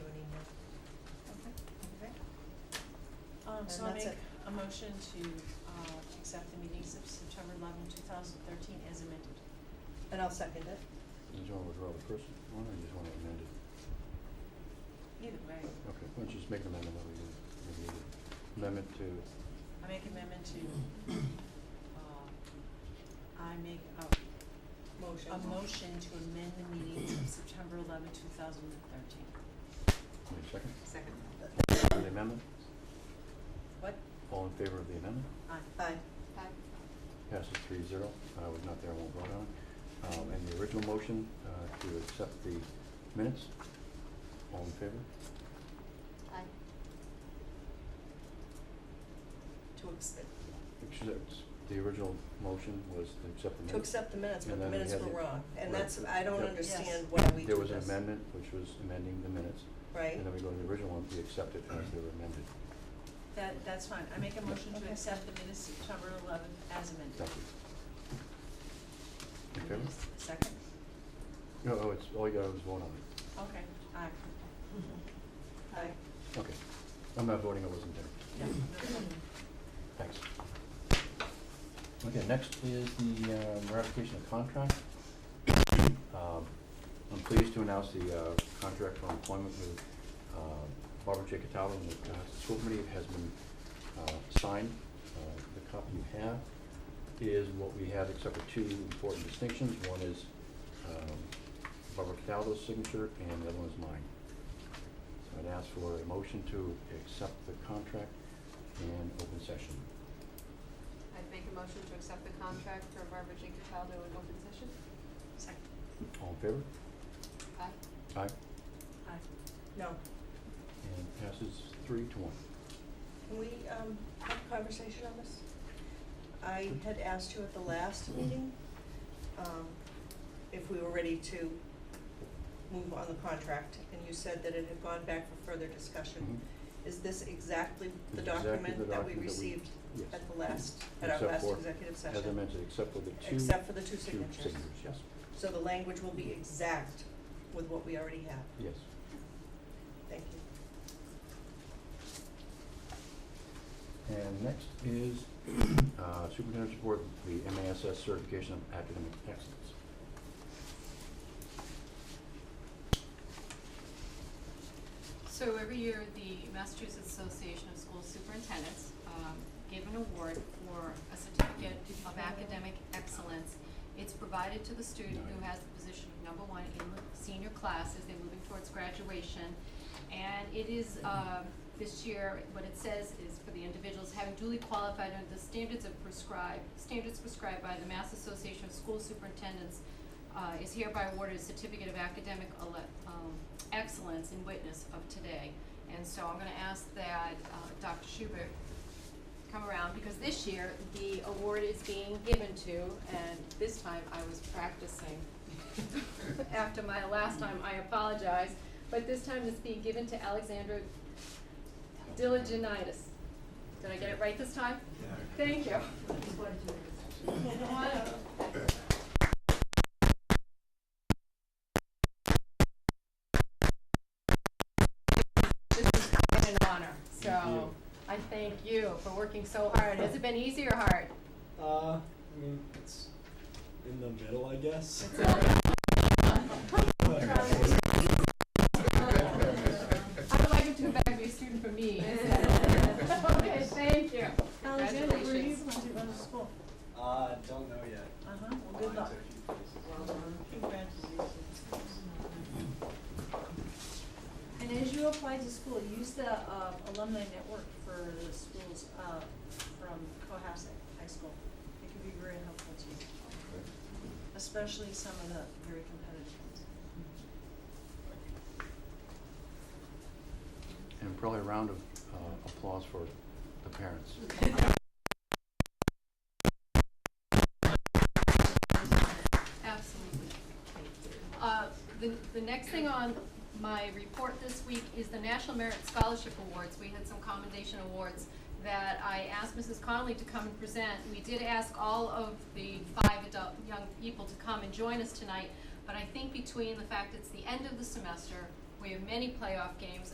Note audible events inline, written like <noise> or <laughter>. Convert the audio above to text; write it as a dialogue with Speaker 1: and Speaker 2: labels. Speaker 1: Um, so I
Speaker 2: And that's
Speaker 1: make
Speaker 2: it.
Speaker 1: a motion to, uh, accept the meetings of September 11, thousand thirteen as amended.
Speaker 2: And I'll second it.
Speaker 3: Did you want to withdraw the first one, or you just want to amend it?
Speaker 1: Either way,
Speaker 3: Okay, why don't you just make an amendment, that we can review it? Amendment to,
Speaker 1: I make amendment to, uh, I make a,
Speaker 2: Motion.
Speaker 1: a motion to amend the meetings of September 11, thousand thirteen.
Speaker 3: wait a second,
Speaker 1: Second.
Speaker 3: the amendment,
Speaker 1: What?
Speaker 3: all in favor of the amendment?
Speaker 1: Aye.
Speaker 2: Aye.
Speaker 3: Passes three zero. I was not there, I won't vote on it. Um, and the original motion, uh, to accept the minutes, all in favor?
Speaker 4: Aye.
Speaker 2: To accept,
Speaker 3: Except, the original motion was to accept the minutes.
Speaker 2: to accept the minutes, but
Speaker 3: And
Speaker 2: the
Speaker 3: then we
Speaker 2: minutes
Speaker 3: had
Speaker 2: were
Speaker 3: the-
Speaker 2: wrong. And
Speaker 3: right.
Speaker 2: that's, I don't
Speaker 3: Yep.
Speaker 2: understand
Speaker 1: Yes.
Speaker 2: why we do this.
Speaker 3: There was an amendment, which was amending the minutes,
Speaker 2: Right?
Speaker 3: and then we go to the original one, we accept it as they were amended.
Speaker 1: That, that's fine. I make a motion to
Speaker 2: Okay.
Speaker 1: accept the minutes of September 11 as amended.
Speaker 3: Thank you. In favor?
Speaker 1: Yes, Second?
Speaker 3: No, oh, it's, all you got was vote on it.
Speaker 1: Okay, <laughs> aye.
Speaker 2: Aye.
Speaker 3: Okay. I'm not voting, I wasn't there.
Speaker 1: Yeah, no problem.
Speaker 3: Thanks. Okay, next is the um, ratification of contract. Um, I'm pleased to announce the uh, contract for employment with uh, Barbara J. Cataldo and the uh, school committee has been uh, signed. Uh, The copy you have is what we have except for two important distinctions. One is um, Barbara Cataldo's signature and the other one is mine. So I'd ask for a motion to accept the contract and open session.
Speaker 4: I'd make a motion to accept the contract for Barbara J. Cataldo in open session.
Speaker 1: Second,
Speaker 3: All in favor?
Speaker 4: Aye.
Speaker 3: Aye.
Speaker 1: aye.
Speaker 2: No.
Speaker 3: And passes three to one.
Speaker 2: Can we um, have a conversation on this? I had asked you at the last meeting um, if we were ready to move on the contract, and you said that it had gone back for further
Speaker 3: Mm-hmm.
Speaker 2: discussion. Is this exactly the
Speaker 3: It's exactly the
Speaker 2: document that we
Speaker 3: document that we-
Speaker 2: received
Speaker 3: Yes.
Speaker 2: at the last, at our
Speaker 3: Except
Speaker 2: last
Speaker 3: for-
Speaker 2: executive session?
Speaker 3: As I mentioned, except for the two.
Speaker 2: Except for the two
Speaker 3: two
Speaker 2: signatures.
Speaker 3: yes,
Speaker 2: So the language will be exact with what we already have.
Speaker 3: yes.
Speaker 2: Thank you.
Speaker 3: And next is <clears throat> uh, superintendent's report, the MASS certification of academic excellence.
Speaker 4: So every year, the Massachusetts Association of School Superintendents um, give an award for a certificate of academic excellence. It's provided to the student who has the position of number one in the senior class as they're moving towards graduation. And it is, um, this year, what it says is for the individuals having duly qualified under the standards of prescribed, standards prescribed by the Mass Association of School Superintendents uh, is hereby awarded a certificate of academic ele- um, excellence in witness of today. And so I'm gonna ask that, uh, Dr. Schubert come around, because this year, the award is being given to, and this time I was practicing. After my last time, I apologize, but this time it's being given to Alexandra Diligenitis. Did I get it right this time? Thank you. This is quite an honor, so I thank you for working so hard. Has it been easy or hard?
Speaker 5: Uh, I mean, it's in the middle, I guess. <laughs>
Speaker 4: I would like him to come back and be a student for me.
Speaker 5: <laughs>
Speaker 4: Okay, thank you.
Speaker 1: Alexander, where are you
Speaker 4: Congratulations.
Speaker 1: going to go to school?
Speaker 5: Uh, don't know yet.
Speaker 1: Uh-huh, well, good luck. Congratulations. And as you apply to school, use the uh, alumni network for the schools uh, from Cohasset High School. It can be very helpful to you, especially some of the very competitive ones.
Speaker 3: And probably a round of uh, applause for the parents.
Speaker 4: Absolutely. Uh, The, the next thing on my report this week is the National Merit Scholarship Awards. We had some commendation awards that I asked Mrs. Connolly to come and present. We did ask all of the five adult, young people to come and join us tonight, but I think between the fact it's the end of the semester, we have many playoff games,